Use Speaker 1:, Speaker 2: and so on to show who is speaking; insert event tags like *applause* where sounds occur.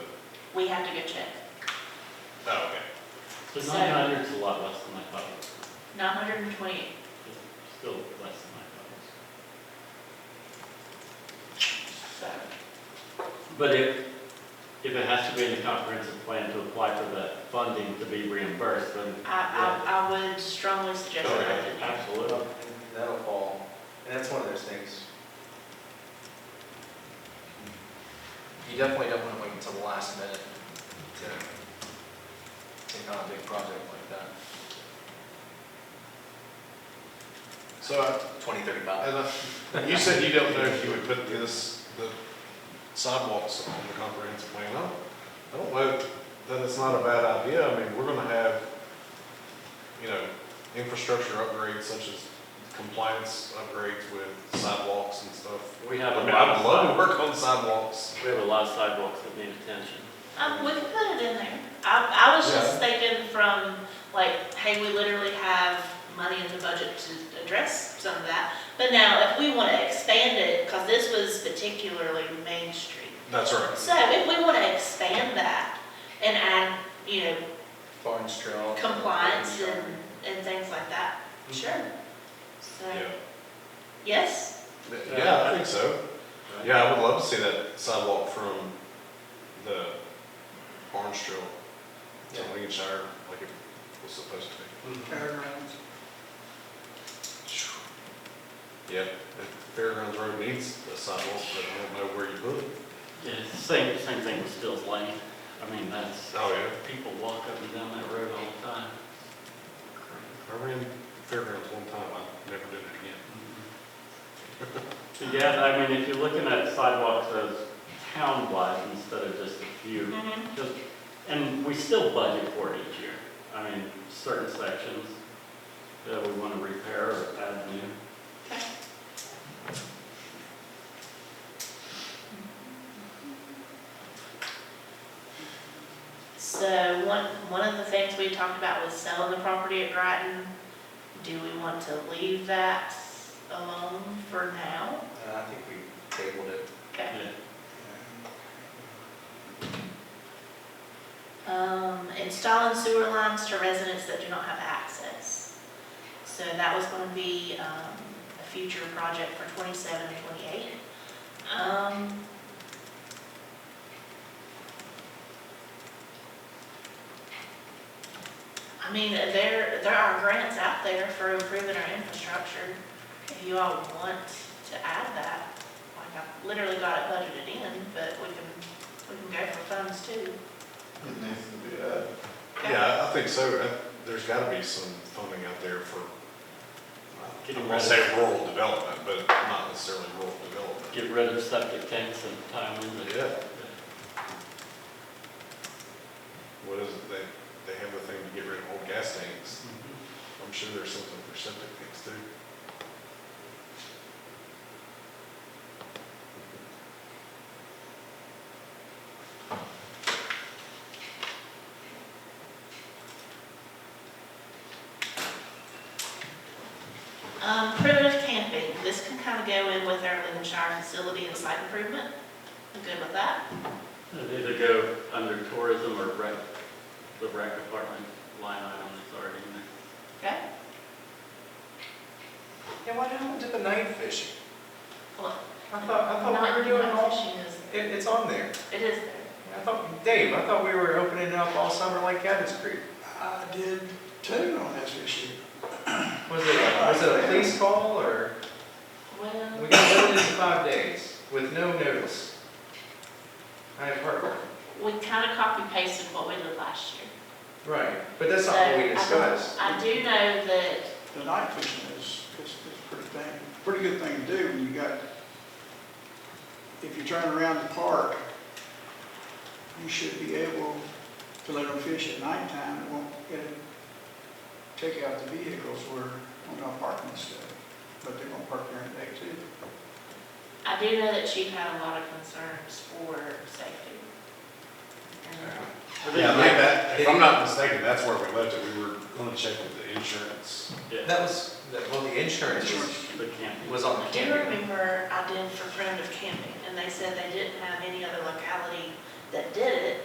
Speaker 1: we have to go check.
Speaker 2: Oh, okay.
Speaker 3: So
Speaker 1: So-
Speaker 3: nine hundred is a lot less than I thought it was,
Speaker 1: Nine hundred and twenty,
Speaker 3: It's still less than I thought it
Speaker 1: so,
Speaker 3: was. But if, if it has to be in the comprehensive plan to apply for the funding to be reimbursed, then
Speaker 1: I, I, I would strongly suggest
Speaker 2: Oh,
Speaker 1: that.
Speaker 2: yeah.
Speaker 1: that's in there.
Speaker 3: absolutely.
Speaker 4: That'll fall, and that's one of those things. You definitely don't wanna wait until the last minute to take on a big project like that.
Speaker 2: So, uh,
Speaker 4: Twenty thirty-five.
Speaker 2: and, uh, you said you don't know if you would put this, the sidewalks on the comprehensive plan. I don't, I don't know that it's not a bad idea. I mean, we're gonna have, you know, infrastructure upgrades such as compliance upgrades with sidewalks and stuff.
Speaker 3: We have
Speaker 2: I
Speaker 3: a
Speaker 2: mean,
Speaker 3: lot
Speaker 2: I'd
Speaker 3: of
Speaker 2: love to
Speaker 3: sidewalks,
Speaker 2: work on sidewalks.
Speaker 3: we have a lot of sidewalks that need attention.
Speaker 1: Um, we can put it in there. I, I was just
Speaker 2: Yeah.
Speaker 1: thinking from, like, hey, we literally have money in the budget to address some of that. But now, if we want to expand it, because this was particularly Main Street.
Speaker 2: That's right.
Speaker 1: So if we want to expand that and add, you know,
Speaker 4: Barnes Trail.
Speaker 1: compliance and, and things like that, sure. So,
Speaker 2: Yeah.
Speaker 1: yes,
Speaker 2: Yeah, I think so. Yeah, I would love to see that sidewalk from the Orange Trail to
Speaker 4: Yeah.
Speaker 2: Lincolnshire, like it was supposed to
Speaker 4: Mm-hmm.
Speaker 5: Fairgrounds.
Speaker 2: be. Yeah, the Fairgrounds Road needs a sidewalk, but I don't know where you put it.
Speaker 3: Yeah, it's the same, same thing with Stills Lane, I mean, that's,
Speaker 2: Oh, yeah.
Speaker 3: people walk up and down that road all the
Speaker 2: *laughs*
Speaker 3: time.
Speaker 2: I ran Fairgrounds one time, I never did it again.
Speaker 3: So, Yeah, I mean, if you're looking at sidewalks as town-wide instead of just a few,
Speaker 1: Mhm.
Speaker 3: just, and we still budget for it each year. I mean, certain sections that we want to repair or add new.
Speaker 1: okay. So one, one of the things we talked about was selling the property at Grattan. Do we want to leave that alone for now?
Speaker 4: Uh, I think we tabled it.
Speaker 1: Okay.
Speaker 3: Yeah.
Speaker 1: Um, installing sewer lines to residents that do not have access. So that was gonna be, um, a future project for twenty-seven and twenty-eight. Um. I mean, there, there are grants out there for improving our infrastructure. If you all want to add that, like, I literally got it budgeted in, but we can, we can go for funds too.
Speaker 5: It needs to be added.
Speaker 2: Yeah, I- I think so. Uh, There's gotta be some funding out there for, uh, I'm
Speaker 3: Getting
Speaker 2: gonna
Speaker 3: rid
Speaker 2: say
Speaker 3: of,
Speaker 2: rural development, but not necessarily rural development.
Speaker 3: get rid of septic tanks and tie them in.
Speaker 2: Yeah. What is it, they, they have a thing to get rid of old gas tanks.
Speaker 3: Mhm.
Speaker 2: I'm sure there's something for septic tanks too.
Speaker 1: Um, primitive camping, this can kind of go in with our Lincolnshire facility and site improvement. I'm good with that.
Speaker 3: It'd either go under tourism or rec, the rec department line item is already in there.
Speaker 1: Okay.
Speaker 4: Yeah, why didn't we do the night fishing?
Speaker 1: Well,
Speaker 4: I thought, I thought we were doing
Speaker 1: Not
Speaker 4: all,
Speaker 1: fishing is,
Speaker 4: it, it's on there.
Speaker 1: it is there.
Speaker 4: I thought, Dave, I thought we were opening up all summer like Cabot's Creek.
Speaker 5: I did too on this issue.
Speaker 4: Was it, was it a police call or?
Speaker 1: Well,
Speaker 4: We got notice in five days with no notice. I have heard.
Speaker 1: we kind of copy pasted what we did last year.
Speaker 4: Right, but that's
Speaker 1: So
Speaker 4: not what we
Speaker 1: Uh, I don't-
Speaker 4: discussed.
Speaker 1: I do know that,
Speaker 5: The night fishing is, is, is pretty thing, pretty good thing to do when you got, if you turn around the park, you should be able to let them fish at nighttime, it won't get, take out the vehicles where, on our parking and stuff, but they won't park during the day too.
Speaker 1: I do know that chief had a lot of concerns for safety.
Speaker 4: Uh-huh.
Speaker 1: And
Speaker 2: Yeah, like that, if I'm not
Speaker 4: Did-
Speaker 2: mistaken, that's where we left it. We were gonna check with the insurance.
Speaker 3: Yeah,
Speaker 4: That was, that- well, the insurance was-
Speaker 3: the camping.
Speaker 4: was on
Speaker 1: I
Speaker 4: the
Speaker 1: do
Speaker 4: camera.
Speaker 1: remember I did for primitive camping, and they said they didn't have any other locality that did it,